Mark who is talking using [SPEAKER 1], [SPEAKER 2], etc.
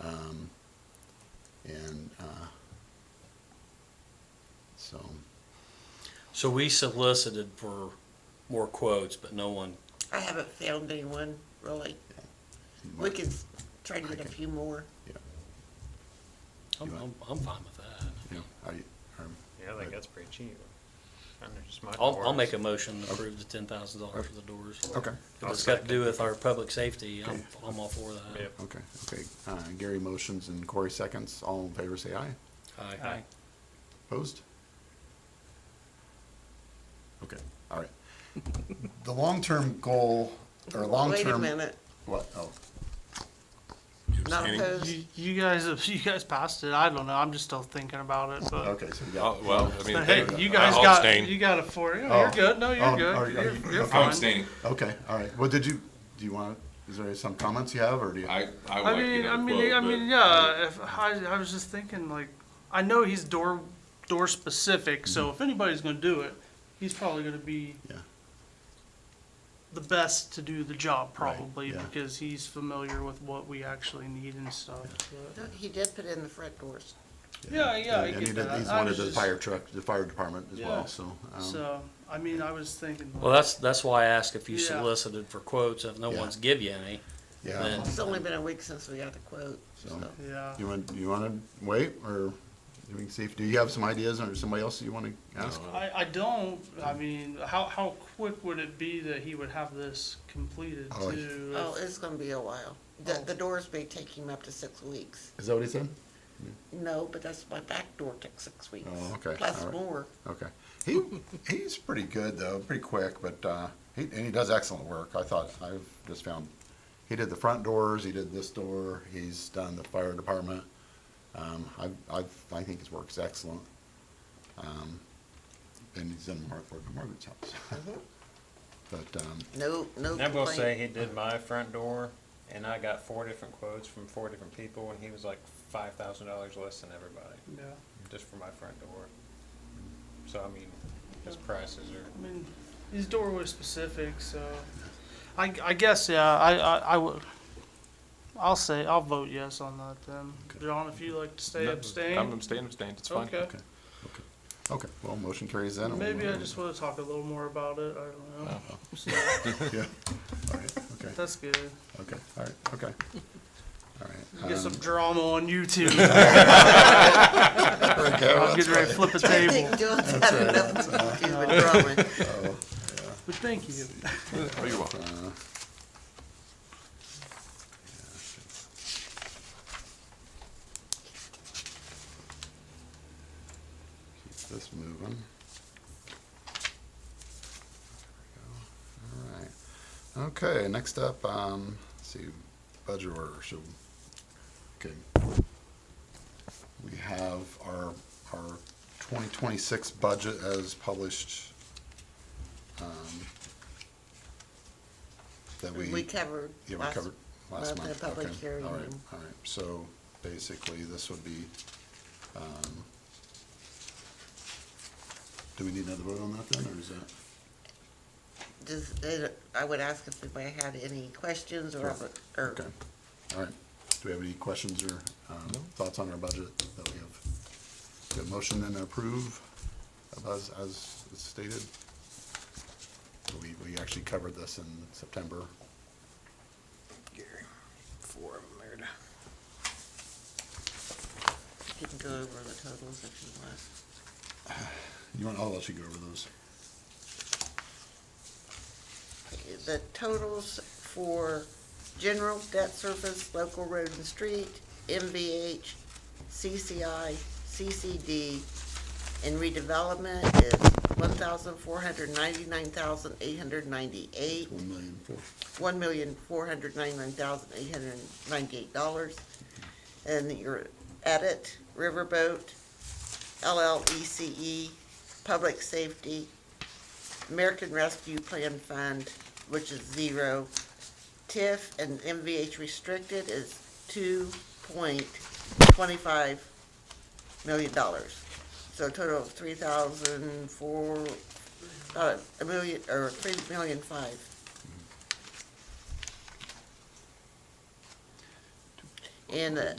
[SPEAKER 1] uh, so.
[SPEAKER 2] So we solicited for more quotes, but no one,
[SPEAKER 3] I haven't found anyone, really. We could try to get a few more.
[SPEAKER 2] I'm,
[SPEAKER 1] You
[SPEAKER 2] I'm, I'm fine with that.
[SPEAKER 1] Yeah, I- um,
[SPEAKER 4] Yeah, I think that's pretty cheap. Under smart
[SPEAKER 2] I'll, I'll
[SPEAKER 4] doors.
[SPEAKER 2] make a motion to approve the ten thousand dollars for the doors.
[SPEAKER 1] Okay,
[SPEAKER 2] If it's got to do with our public safety, I'm, I'm all for
[SPEAKER 4] Yep.
[SPEAKER 2] that.
[SPEAKER 1] okay, okay. Uh, Gary motions and Corey seconds. All in favor, say aye.
[SPEAKER 2] Aye.
[SPEAKER 4] Aye.
[SPEAKER 1] Opposed? Okay, all right. The long-term goal, or
[SPEAKER 3] Wait a
[SPEAKER 1] long-term.
[SPEAKER 3] minute,
[SPEAKER 1] What, oh,
[SPEAKER 3] not opposed.
[SPEAKER 5] You, you guys, if you guys passed it, I don't know. I'm just still thinking about it, but.
[SPEAKER 1] okay, so we got.
[SPEAKER 6] Oh, well, I mean,
[SPEAKER 5] But hey,
[SPEAKER 6] they-
[SPEAKER 5] you guys
[SPEAKER 6] I'll
[SPEAKER 5] got
[SPEAKER 6] abstain.
[SPEAKER 5] you got a four. Oh,
[SPEAKER 1] Oh.
[SPEAKER 5] You're good. No, you're
[SPEAKER 1] Oh,
[SPEAKER 5] good.
[SPEAKER 1] are you- are
[SPEAKER 5] you're,
[SPEAKER 1] you-
[SPEAKER 5] you're
[SPEAKER 1] okay.
[SPEAKER 6] I'm
[SPEAKER 5] fine.
[SPEAKER 6] abstaining.
[SPEAKER 1] Okay, all right. Well, did you, do you want, is there some comments you have, or do you?
[SPEAKER 6] I, I
[SPEAKER 5] I
[SPEAKER 6] would like to
[SPEAKER 5] mean,
[SPEAKER 6] get
[SPEAKER 5] I
[SPEAKER 6] a
[SPEAKER 5] mean,
[SPEAKER 6] quote,
[SPEAKER 5] I
[SPEAKER 6] but-
[SPEAKER 5] mean, yeah. If I, I was just thinking, like, I know he's door door specific, so if anybody's gonna do it, he's probably gonna be
[SPEAKER 1] Mm-hmm. Yeah.
[SPEAKER 5] the best to do the job,
[SPEAKER 1] Right,
[SPEAKER 5] probably
[SPEAKER 1] yeah.
[SPEAKER 5] because he's familiar with what we actually need and stuff. but-
[SPEAKER 3] No, He did put in the front doors.
[SPEAKER 5] Yeah, yeah, I
[SPEAKER 1] And
[SPEAKER 5] get
[SPEAKER 1] he did-
[SPEAKER 5] that.
[SPEAKER 1] He's
[SPEAKER 5] I
[SPEAKER 1] wanted
[SPEAKER 5] was
[SPEAKER 1] the
[SPEAKER 5] just-
[SPEAKER 1] fire truck, the fire department as
[SPEAKER 5] Yeah.
[SPEAKER 1] well, so. um,
[SPEAKER 5] So, I mean, I was thinking.
[SPEAKER 2] Well,
[SPEAKER 5] like,
[SPEAKER 2] that's, that's why I asked if you
[SPEAKER 5] Yeah.
[SPEAKER 2] solicited for quotes. If no
[SPEAKER 1] Yeah.
[SPEAKER 2] one's give you any,
[SPEAKER 1] Yeah,
[SPEAKER 2] then-
[SPEAKER 3] It's only been a week since we got the quote, so.
[SPEAKER 1] So-
[SPEAKER 5] Yeah.
[SPEAKER 1] you want, you want to wait, or we can see if, do you have some ideas, or somebody else you want to ask?
[SPEAKER 5] I, I don't, I mean, how, how quick would it be that he would have this completed
[SPEAKER 1] Oh, he-
[SPEAKER 5] too?
[SPEAKER 3] Oh, it's gonna be a while. The,
[SPEAKER 5] Oh.
[SPEAKER 3] the doors may take him up to six weeks.
[SPEAKER 1] Is that what he said?
[SPEAKER 3] No, but that's my back door took six weeks.
[SPEAKER 1] Oh, okay,
[SPEAKER 3] Plus
[SPEAKER 1] all right.
[SPEAKER 3] more.
[SPEAKER 1] Okay. He, he's pretty good, though, pretty quick, but, uh, he, and he does excellent work. I thought, I've just found, he did the front doors, he did this door, he's done the fire department. Um, I, I, I think his work's excellent. Um, and he's done Mark, work at Margaret's house.
[SPEAKER 5] Mm-hmm.
[SPEAKER 1] But, um,
[SPEAKER 3] No, no
[SPEAKER 4] I will say
[SPEAKER 3] complaint.
[SPEAKER 4] he did my front door, and I got four different quotes from four different people, and he was like five thousand dollars less than everybody
[SPEAKER 5] Yeah,
[SPEAKER 4] just for my front door. So I mean, his prices are
[SPEAKER 5] I mean, he's doorway specific, so, I, I guess, yeah, I, I, I would, I'll say, I'll vote yes on that then. John, if you like to stay
[SPEAKER 6] No, I'm
[SPEAKER 5] abstain,
[SPEAKER 6] abstaining, abstaining, it's fine.
[SPEAKER 5] okay.
[SPEAKER 1] okay, well, motion carries then. and we'll-
[SPEAKER 5] Maybe I just wanna talk a little more about it, I
[SPEAKER 6] Oh.
[SPEAKER 5] don't know, so,
[SPEAKER 1] Yeah, all right, okay,
[SPEAKER 5] that's good.
[SPEAKER 1] okay, all right, okay. All right.
[SPEAKER 5] Get
[SPEAKER 1] um,
[SPEAKER 5] some drama on YouTube,
[SPEAKER 1] there we go,
[SPEAKER 5] I'm
[SPEAKER 1] that's
[SPEAKER 5] getting ready to flip a
[SPEAKER 3] I
[SPEAKER 5] table,
[SPEAKER 3] think John's had enough to do with drawing.
[SPEAKER 5] but thank you.
[SPEAKER 6] Oh, you're welcome.
[SPEAKER 1] Keep this moving. There we go. All right. Okay, next up, um, let's see, budget order, so, okay. We have our, our twenty twenty-six budget as published. um, That we.
[SPEAKER 3] We covered.
[SPEAKER 1] Yeah, we
[SPEAKER 3] last-
[SPEAKER 1] covered last
[SPEAKER 3] month in
[SPEAKER 1] month.
[SPEAKER 3] a public
[SPEAKER 1] Okay.
[SPEAKER 3] hearing
[SPEAKER 1] All right,
[SPEAKER 3] and-
[SPEAKER 1] all right. So basically, this would be, um, do we need another vote on that then, or is that?
[SPEAKER 3] Does, it- I would ask if anybody had any questions or,
[SPEAKER 1] Sure.
[SPEAKER 3] or
[SPEAKER 1] Okay, all right. Do we have any questions or um, thoughts on our budget that we have? Do we have a motion then to approve of as, as stated? We, we actually covered this in September.
[SPEAKER 4] four of them there.
[SPEAKER 3] you can go over the totals if you want.
[SPEAKER 1] You want, I'll let you go over those.
[SPEAKER 3] the totals for general debt service, local road and street, MVH, CCI, CCD, and redevelopment is one thousand four hundred ninety-nine thousand eight hundred ninety-eight,
[SPEAKER 1] One million four.
[SPEAKER 3] one million four hundred ninety-nine thousand eight hundred ninety-eight dollars. And your edit, Riverboat, LLECE, E, Public Safety, American Rescue Plan Fund, which is zero. TIF and MVH restricted is two point twenty-five million dollars. So a total of three thousand four, uh, a million, or three million five. And uh,